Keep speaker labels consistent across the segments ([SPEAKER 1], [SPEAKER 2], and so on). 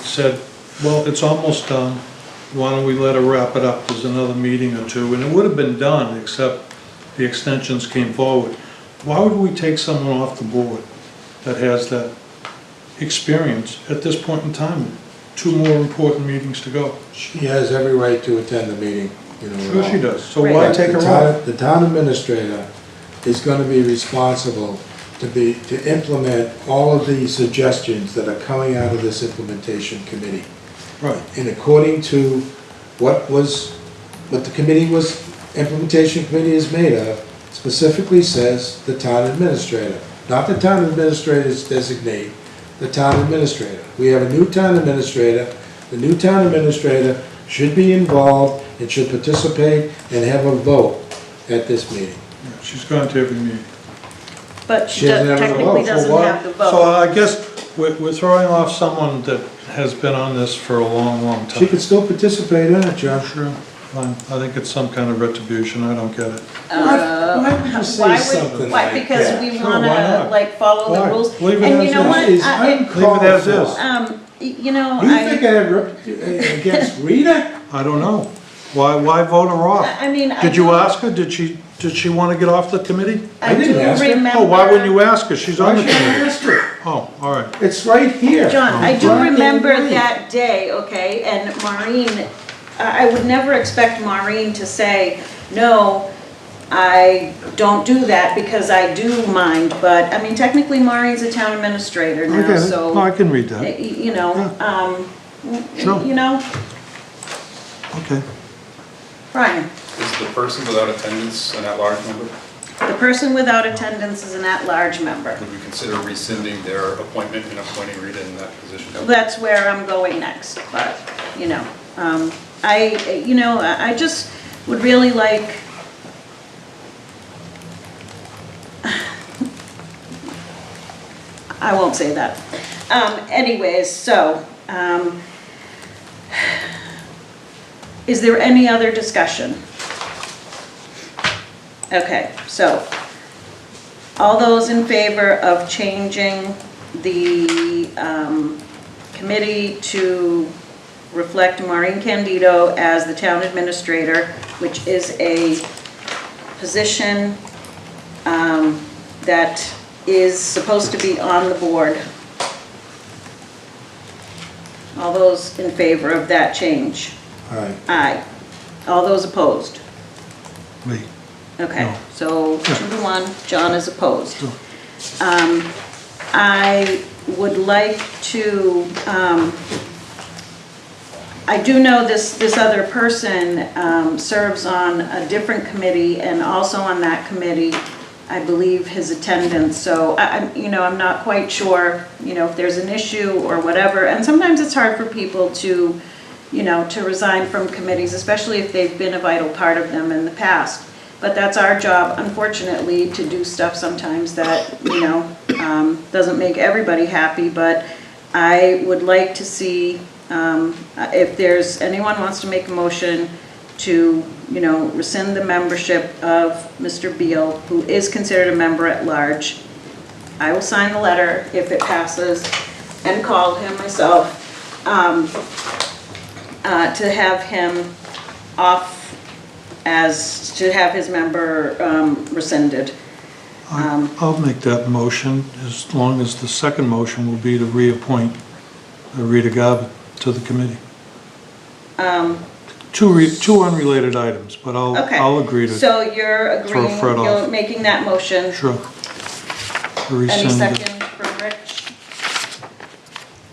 [SPEAKER 1] said, well, it's almost done, why don't we let her wrap it up, there's another meeting or two, and it would have been done, except the extensions came forward. Why would we take someone off the board that has that experience at this point in time? Two more important meetings to go.
[SPEAKER 2] She has every right to attend the meeting, you know.
[SPEAKER 1] Sure she
[SPEAKER 2] uh,
[SPEAKER 1] does, so why
[SPEAKER 2] but
[SPEAKER 1] take
[SPEAKER 2] the
[SPEAKER 1] her
[SPEAKER 2] town-
[SPEAKER 1] off?
[SPEAKER 2] The town administrator is gonna be responsible to be, to implement all of the suggestions that are coming out of this implementation committee.
[SPEAKER 1] Right,
[SPEAKER 2] And according to what was, what the committee was, implementation committee is made of, specifically says the town administrator, not the town administrator's designate, the town administrator. We have a new town administrator, the new town administrator should be involved and should participate and have a vote at this meeting.
[SPEAKER 1] Yeah, she's gone to every meeting.
[SPEAKER 3] But
[SPEAKER 2] She
[SPEAKER 3] she
[SPEAKER 2] doesn't have the
[SPEAKER 3] technically
[SPEAKER 2] vote,
[SPEAKER 1] So
[SPEAKER 3] doesn't
[SPEAKER 1] why-
[SPEAKER 3] have the
[SPEAKER 1] So
[SPEAKER 3] vote.
[SPEAKER 1] I guess we're, we're throwing off someone that has been on this for a long, long time.
[SPEAKER 2] She could still participate in it,
[SPEAKER 3] Uh,
[SPEAKER 2] John.
[SPEAKER 1] Sure, fine, I think it's some kind of retribution, I don't get it.
[SPEAKER 3] Uh,
[SPEAKER 2] Why would you
[SPEAKER 3] why
[SPEAKER 2] say
[SPEAKER 3] would-
[SPEAKER 2] something
[SPEAKER 3] Why,
[SPEAKER 2] like
[SPEAKER 3] because
[SPEAKER 2] that?
[SPEAKER 3] we
[SPEAKER 1] Sure, why
[SPEAKER 3] wanna
[SPEAKER 1] not?
[SPEAKER 3] like follow
[SPEAKER 2] Why?
[SPEAKER 3] the rules.
[SPEAKER 1] Leave it
[SPEAKER 3] And
[SPEAKER 1] as
[SPEAKER 3] you know
[SPEAKER 1] is.
[SPEAKER 3] what?
[SPEAKER 2] It's
[SPEAKER 3] I- it-
[SPEAKER 1] Leave
[SPEAKER 2] uncalled
[SPEAKER 1] it as
[SPEAKER 2] for.
[SPEAKER 1] is.
[SPEAKER 3] Um, y- you know,
[SPEAKER 2] You think I
[SPEAKER 3] I,
[SPEAKER 2] have rep- against Rita?
[SPEAKER 1] I don't know. Why, why vote her off?
[SPEAKER 3] I I mean, I.
[SPEAKER 1] Did you
[SPEAKER 3] do-
[SPEAKER 1] ask her? Did she, did she want to get off the committee?
[SPEAKER 2] I
[SPEAKER 3] I
[SPEAKER 2] didn't
[SPEAKER 3] do
[SPEAKER 2] ask her.
[SPEAKER 3] remember.
[SPEAKER 1] Oh, why wouldn't you ask her? She's on
[SPEAKER 2] Why
[SPEAKER 1] the
[SPEAKER 2] should I
[SPEAKER 1] committee.
[SPEAKER 2] ask her?
[SPEAKER 1] Oh, all right.
[SPEAKER 2] It's right here.
[SPEAKER 3] John, I do
[SPEAKER 2] Right
[SPEAKER 3] remember
[SPEAKER 2] there.
[SPEAKER 3] that day, okay, and Maureen, I I would never expect Maureen to say, no, I don't do that because I do mind, but, I mean, technically Maureen's a town administrator
[SPEAKER 1] I
[SPEAKER 3] now,
[SPEAKER 1] get it.
[SPEAKER 3] so.
[SPEAKER 1] No, I can read
[SPEAKER 3] Y-
[SPEAKER 1] that.
[SPEAKER 3] you know, um, y-
[SPEAKER 1] Sure.
[SPEAKER 3] you know,
[SPEAKER 1] Okay.
[SPEAKER 3] Brian,
[SPEAKER 4] Is the person without attendance an at-large member?
[SPEAKER 3] the person without attendance is an at-large member.
[SPEAKER 4] Would we consider rescinding their appointment and appointing Rita in that position?
[SPEAKER 3] That's where I'm going next, but, you know, um, I, you know, I I just would really like, I won't say that. Um, anyways, so, um, is there any other discussion? Okay, so, all those in favor of changing the um, committee to reflect Maureen Candido as the town administrator, which is a position um, that is supposed to be on the board. All those in favor of that change?
[SPEAKER 2] All right.
[SPEAKER 3] Aye. All those opposed?
[SPEAKER 1] Me.
[SPEAKER 3] Okay,
[SPEAKER 1] No.
[SPEAKER 3] so two to one, John is opposed. Um, I would like to, um, I do know this, this other person um, serves on a different committee and also on that committee, I believe, his attendance. So I, I'm, you know, I'm not quite sure, you know, if there's an issue or whatever. And sometimes it's hard for people to, you know, to resign from committees, especially if they've been a vital part of them in the past. But that's our job, unfortunately, to do stuff sometimes that, you know, um, doesn't make everybody happy. But I would like to see, um, if there's, anyone wants to make a motion to, you know, rescind the membership of Mr. Beal, who is considered a member at large. I will sign the letter if it passes and call him myself um, uh, to have him off as, to have his member um, rescinded. Um,
[SPEAKER 1] I- I'll make that motion as long as the second motion will be to reappoint uh, Rita Garba to the committee. Two, re- two unrelated items, but I'll,
[SPEAKER 3] Um, Okay.
[SPEAKER 1] I'll agree to,
[SPEAKER 3] So you're
[SPEAKER 1] throw
[SPEAKER 3] agreeing,
[SPEAKER 1] Fred off.
[SPEAKER 3] you're making that motion.
[SPEAKER 1] sure. To
[SPEAKER 3] Any
[SPEAKER 1] rescind it.
[SPEAKER 3] second from Rich?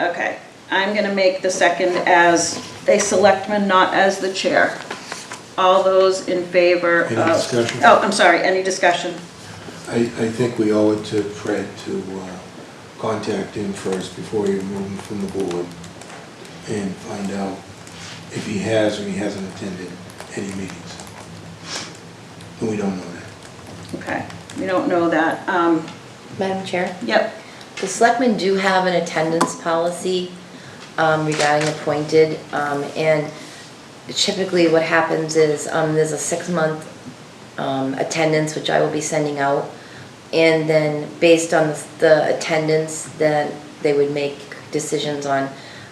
[SPEAKER 3] Okay, I'm gonna make the second as a selectman, not as the chair. All those in favor of...
[SPEAKER 2] Any discussion?
[SPEAKER 3] Oh, I'm sorry, any discussion?
[SPEAKER 2] I, I think we owe it to Fred to uh, contact him first before you remove him from the board and find out if he has or he hasn't attended any meetings. And we don't know that.
[SPEAKER 3] Okay, we don't know that. Um,
[SPEAKER 5] Madam Chair,
[SPEAKER 3] Yep,
[SPEAKER 5] the selectmen do have an attendance policy um, regarding appointed, um, and typically what happens is, um, there's a six-month um, attendance, which I will be sending out, and then based on the attendance, then they would make decisions on